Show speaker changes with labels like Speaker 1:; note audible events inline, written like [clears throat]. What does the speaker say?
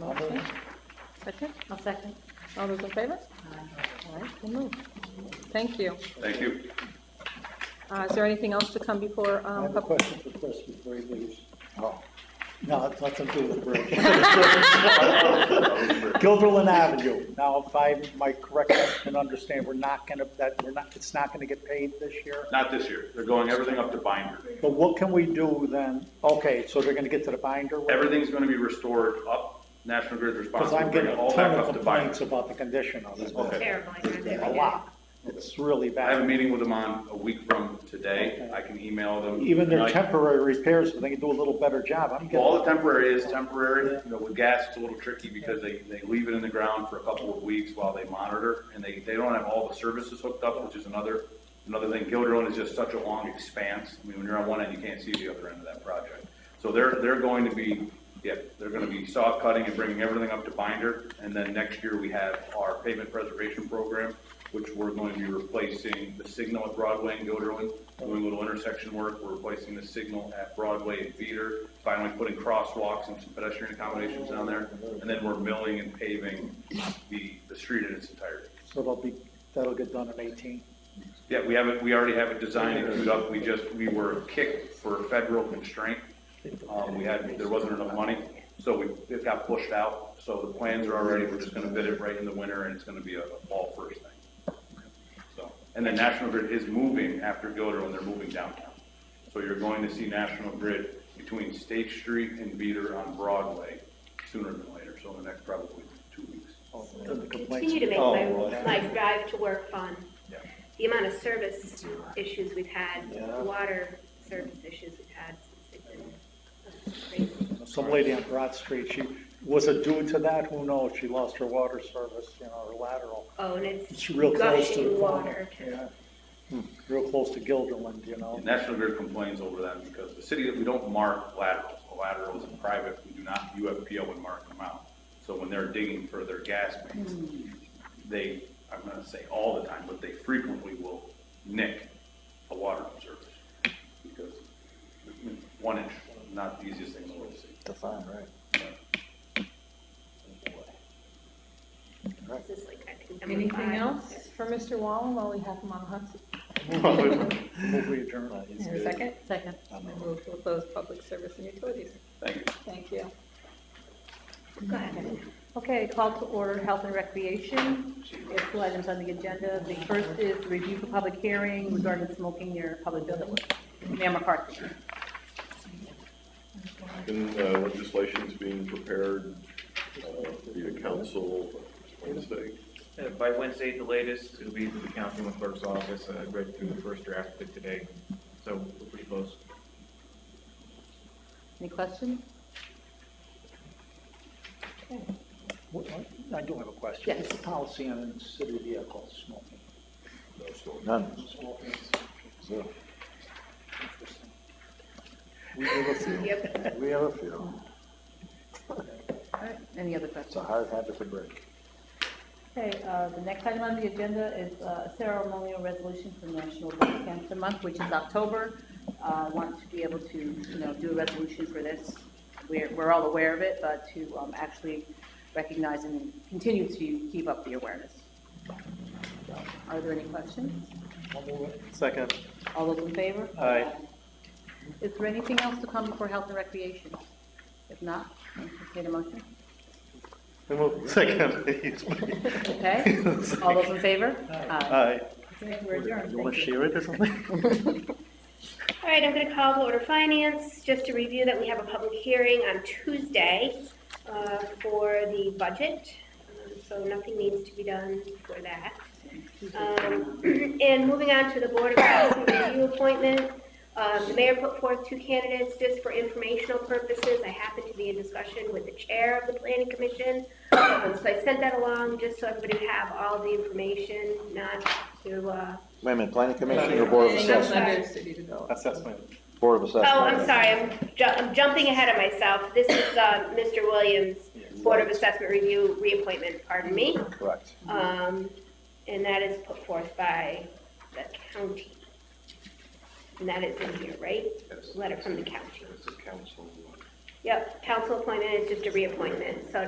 Speaker 1: Motion. Second?
Speaker 2: I'll second.
Speaker 1: All those in favor? All right, we'll move. Thank you.
Speaker 3: Thank you.
Speaker 1: Uh, Is there anything else to come before?
Speaker 4: I
Speaker 1: um,
Speaker 4: have a
Speaker 1: pub-
Speaker 4: question for Chris before he leaves. Oh. No, it's not something with the [laughs] bridge. Gilderlin Avenue, now if I, my correct, and understand, we're not gonna, that, we're not, it's not gonna get paid this year?
Speaker 3: Not this year. They're going everything up to binder.
Speaker 4: But what can we do then? Okay, so they're gonna get to the binder?
Speaker 3: Everything's gonna be restored up. National Grid's
Speaker 4: Because
Speaker 3: responsible
Speaker 4: I'm
Speaker 3: to bring
Speaker 4: getting
Speaker 3: it
Speaker 4: a
Speaker 3: all back
Speaker 4: ton of
Speaker 3: up to
Speaker 4: complaints
Speaker 3: binder.
Speaker 4: about the condition of it.
Speaker 3: Okay.
Speaker 2: Terrible. I can't do
Speaker 4: A
Speaker 2: it.
Speaker 4: lot. It's really
Speaker 3: I have a
Speaker 4: bad.
Speaker 3: meeting with them on a week from today. I can email them.
Speaker 4: Even their
Speaker 3: tonight.
Speaker 4: temporary repairs, if they can do a little better job, I'm
Speaker 3: Well, All
Speaker 4: getting,
Speaker 3: the temporary is temporary, you know, with gas, it's a little tricky because they, they leave it in the ground for a couple of weeks while they monitor, and they, they don't have all the services hooked up, which is another, another thing. Gilderlin is just such a long expanse, I mean, when you're on one end, you can't see the other end of that project. So they're, they're going to be, yeah, they're gonna be saw cutting and bringing everything up to binder, and then next year we have our pavement preservation program, which we're going to be replacing the signal at Broadway and Gilderlin, doing a little intersection work, we're replacing the signal at Broadway and Veeder, finally putting crosswalks and some pedestrian accommodations down there, and then we're milling and paving the, the street in its entirety.
Speaker 4: so they'll be, that'll get done in eighteen.
Speaker 3: Yeah, we have it, we already have it designed and queued up, we just, we were kicked for federal constraint. Um, we had, there wasn't enough money, so we, it got pushed out, so the plans are already, we're just gonna bid it right in the winter, and it's gonna be a a fall first thing. So, and then National Grid is moving after Gilder when they're moving downtown. So you're going to see National Grid between State Street and Beeder on Broadway sooner than later, so in the next probably two weeks.
Speaker 4: And the complaints-
Speaker 2: Continue to make
Speaker 3: Oh,
Speaker 2: my,
Speaker 3: well.
Speaker 2: my drive to work fun.
Speaker 3: Yeah.
Speaker 2: The amount of service issues we've had,
Speaker 4: Yeah.
Speaker 2: water service issues we've had since they've been, uh, crazy.
Speaker 4: Some lady on Broad Street, she, was it due to that? Who knows? She lost her water service, you know, her lateral.
Speaker 2: Oh, and it's
Speaker 4: It's real close to the
Speaker 2: gushing
Speaker 4: corner.
Speaker 2: water.
Speaker 4: Yeah. Hmm. Real close to Gilderland, you know?
Speaker 3: And National Grid complains over that because the city, we don't mark laterals. The laterals in private, we do not, UFPL would mark them out. So when they're digging for their gas mains, they, I'm not gonna say all the time, but they frequently will nick a water service. Because one inch, not the easiest thing in the world to see.
Speaker 2: This is like, I think, number
Speaker 1: Anything
Speaker 2: five.
Speaker 1: else for Mr. Wallen while we have him on the hot seat?
Speaker 4: Move we adjourn.
Speaker 1: Is there a Second?
Speaker 5: Second.
Speaker 1: I move to close public service and utilities.
Speaker 3: Thank you.
Speaker 1: Thank you.
Speaker 2: Go ahead.
Speaker 5: Okay, call to order health and recreation. There's two items on the agenda. The first is the review for public hearing regarding smoking near public buildings. Mayor McCarthy.
Speaker 6: And uh, legislation's being prepared uh, via council Wednesday.
Speaker 7: Uh, By Wednesday at the latest, it'll be to the council and clerk's office. I read through the first draft of it today, so we're pretty close.
Speaker 5: Any questions?
Speaker 4: What- what- I do have a question.
Speaker 5: Yes.
Speaker 4: What's the policy on city vehicles smoking? None. Interesting.
Speaker 2: You have
Speaker 8: We have a few.
Speaker 5: All right, any other
Speaker 8: It's a
Speaker 5: questions?
Speaker 8: hard habit to break.
Speaker 5: Okay, uh, the next item on the agenda is uh, ceremonial resolution for National Breast Cancer Month, which is October. Uh, Want to be able to, you know, do a resolution for this. We're, we're all aware of it, but to um, actually recognize and continue to keep up the awareness. So, Are there any questions?
Speaker 4: I'll move it.
Speaker 8: Second.
Speaker 5: All those in favor?
Speaker 4: Aye.
Speaker 5: Is there anything else to come before Health and Recreation? If not, entertain a motion.
Speaker 8: Second, please.
Speaker 5: Okay? All those in favor? Aye.
Speaker 8: Aye.
Speaker 5: Okay, We're adjourned.
Speaker 8: You want to
Speaker 5: Thank you.
Speaker 8: share it or something?
Speaker 2: All right, I'm going to call to order finance, just to review that we have a public hearing on Tuesday uh, for the budget, Um, so nothing needs to be done for that. Um, [clears throat] And moving on to the Board of Adjustment Review appointment, um, the mayor put forth two candidates just for informational purposes. I happened to be in discussion with the chair of the planning commission, Um, so I sent that along just so everybody would have all the information, not to, uh,
Speaker 8: Wait a minute, planning commission or board of
Speaker 2: Planning
Speaker 8: assessment?
Speaker 2: Commission.
Speaker 1: Under city development.
Speaker 8: Assessment. Board of assessment.
Speaker 2: Oh, I'm sorry, I'm ju- I'm jumping ahead of myself. This is uh, Mr. Williams, Board of Assessment Review reappointment, pardon me.
Speaker 8: Correct.
Speaker 2: Um, And that is put forth by the county. And that is in here, right? Letter from the county.
Speaker 6: It's a council.
Speaker 2: Yep, council appointment is just a reappointment, so